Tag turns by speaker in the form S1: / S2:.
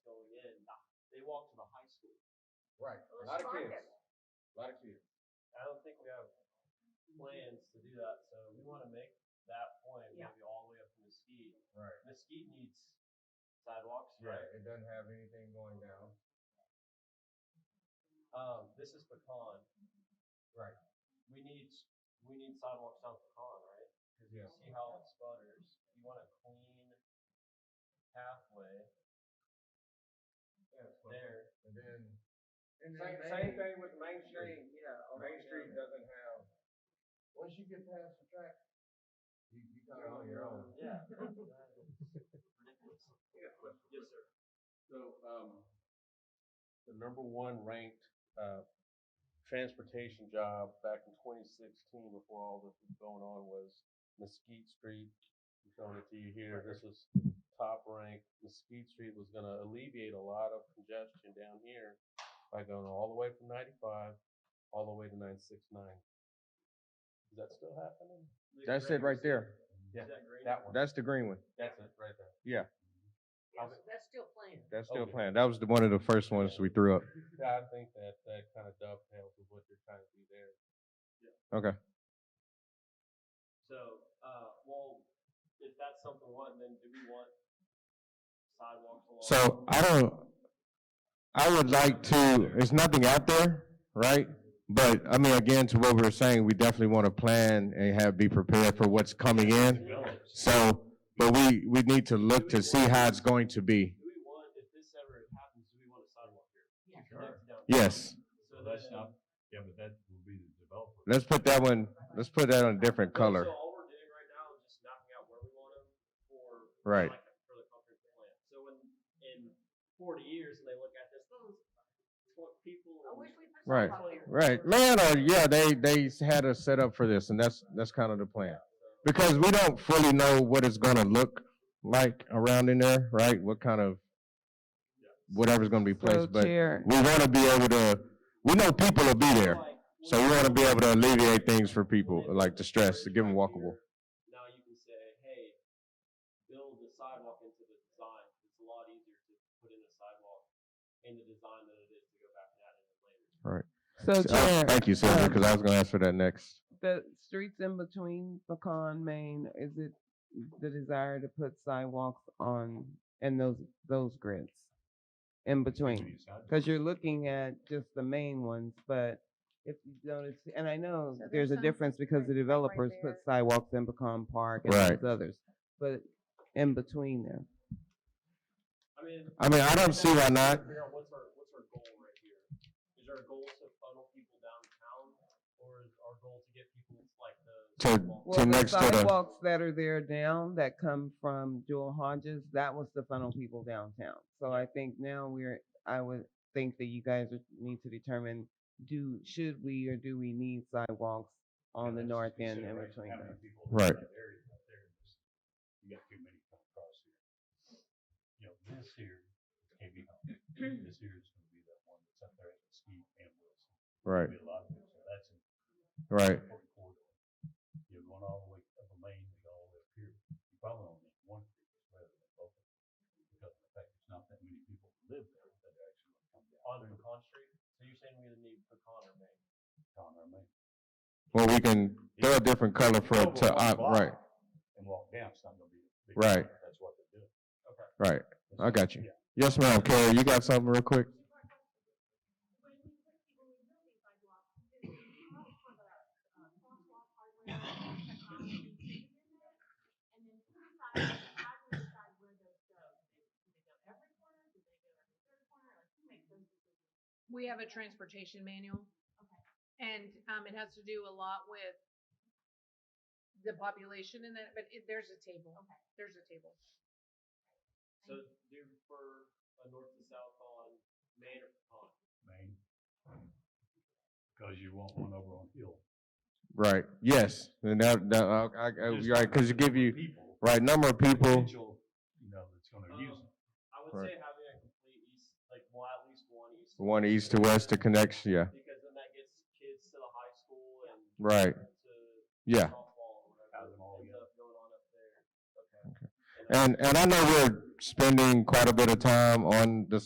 S1: walk to the high school.
S2: Right,
S3: Well,
S2: a lot of
S3: let's
S2: kids,
S3: market.
S2: a lot of kids.
S4: I don't think we have plans to do that, so we want to make that point
S3: Yeah.
S4: maybe all the way up to Mesquite.
S2: Right.
S4: Mesquite needs sidewalks,
S2: Right,
S4: right?
S2: it doesn't have anything going down.
S4: Um, this is pecan.
S2: Right.
S4: We need we need sidewalks on pecan, right? Because
S2: Yeah.
S4: you see how it sputters. You want a clean pathway there.
S2: And then,
S5: And then
S2: same,
S5: Main-
S2: same thing with Main Street,
S5: Mainstream, yeah. on
S2: Main
S5: the
S2: Street
S5: other-
S2: doesn't have, once you get past the track, you, you kind of on your own.
S4: Yeah. that- that is ridiculous. Yes, sir.
S1: So, um, the number one ranked, uh, transportation job back in twenty sixteen before all this was going on was Mesquite Street. I'm showing it to you here. This is top ranked. Mesquite Street was gonna alleviate a lot of congestion down here by going all the way from ninety-five, all the way to nine six nine. Is that still happening?
S4: The
S6: That's it right
S4: grapes,
S6: there.
S1: Yeah,
S4: Is that green?
S1: That one.
S6: That's the green one.
S1: That's it, right there.
S3: Yes, that's still planned.
S6: That's still
S1: Okay.
S6: planned. That was the, one of the first ones we threw up.
S1: Yeah, I think that, that kind of dovetails with what you're trying to do there.
S4: So, uh, well, if that's something we want, then do we want sidewalks along?
S6: So I don't, I would like to, there's nothing out there, right? But I mean, again, to what we were saying, we definitely want to plan and have, be prepared for what's coming in.
S4: Village.
S6: So, but we, we need to look to see how it's going to be.
S4: Do we want, if this ever happens, do we want a sidewalk here?
S3: Yeah.
S4: Connect down-
S6: Yes,
S4: So that's not.
S2: Yeah, but that will be the developer.
S6: let's put that one, let's put that on a different color.
S4: So all we're doing right now is just mapping out where we want them for.
S6: Right.
S4: like, For the comprehensive plan. So when, in forty years, and they look at this, those, tw- people.
S3: I
S4: in-
S3: wish we put
S6: Right.
S3: some out there.
S6: Right, man, or yeah, they, they had us set up for this and that's, that's kind of the plan. Because we don't fully know what it's gonna look like around in there, right? What kind of, whatever's gonna be
S7: So
S6: placed, but
S7: Chair,
S6: we wanna be able to, we know people will be there.
S4: Like,
S6: So
S4: when
S6: we
S4: they
S6: wanna
S4: look
S6: be
S4: at
S6: able to alleviate things for people,
S4: Well, then
S6: like
S4: if
S6: the
S4: it's
S6: stress,
S4: bridge
S6: to give them
S4: right
S6: walkable.
S4: here, Now you can say, hey, build the sidewalk into the design. It's a lot easier to put in a sidewalk in the design than it is to go back and add it in later.
S7: so
S6: Uh,
S7: Chair,
S6: Thank you, Sandra,
S7: um,
S6: because I was gonna ask for that next.
S7: the streets in between Pecan, Maine, is it the desire to put sidewalks on and those those grids in between? Because you're looking at just the main ones, but if you notice, and I know
S3: So there's
S7: there's a
S3: some
S7: difference because the
S3: right
S7: developers
S3: there.
S7: put sidewalks in Pecan Park and
S6: Right.
S7: those others, but in between them.
S4: I mean.
S6: I mean, I don't see why not.
S4: Figure out what's our, what's our goal right here? Is our goal to funnel people downtown or is our goal to get people like the?
S6: To-
S4: sidewalk?
S7: Well, the
S6: next to the-
S7: sidewalks that are there down that come from Jewel Hodges, that was to funnel people downtown. So I think now we're, I would think that you guys would need to determine, do, should we or do we need sidewalks on the north end in between? them?
S6: Right.
S1: You got too many coming across here. You know, this here can't be helped. This here is gonna be that one that's up there at Mesquite and Wilson.
S6: Right,
S1: There'll be a lot of it, so that's an
S6: right,
S1: important corridor. You're going all the way up a main, you go all the way up here. You probably only need one creek rather than both. of them, Because of the fact there's not that many people that live there that are actually gonna come down.
S4: On Pecan Street? So you're saying we either need Pecan or Main?
S1: Down our main.
S6: well, we can throw a different color for,
S1: Over
S6: to,
S1: one
S6: op-
S1: block
S6: right,
S1: And walk down, it's not gonna be. a big
S6: Right.
S1: deal. That's what they're doing.
S6: right, I got you.
S1: Yeah.
S6: Yes, ma'am, Carrie, you got something real quick?
S8: We have a transportation manual. And, um, it has to do a lot with the population and that, but it, there's a table. There's a table.
S4: So do you prefer a north to south on Main or Pecan?
S1: Main. Cause you want one over on Hill.
S6: Right, yes, and that, that, I, I,
S1: Just
S6: right,
S1: not
S6: cause you give
S1: number of
S6: you,
S1: people,
S6: right, number of people,
S1: potential, You know, that's gonna use
S4: Um,
S1: it.
S4: I would
S6: Right.
S4: say having a complete east, like well, at least one east. to
S6: one east to west to connect, yeah,
S4: Because then that gets kids to the high school and
S6: right,
S4: to
S6: yeah.
S4: softball or
S1: Have
S4: whatever
S1: them all
S4: ends
S1: together.
S4: up going on up there. uh, Okay.
S6: And, and I know we're spending quite a bit of time on the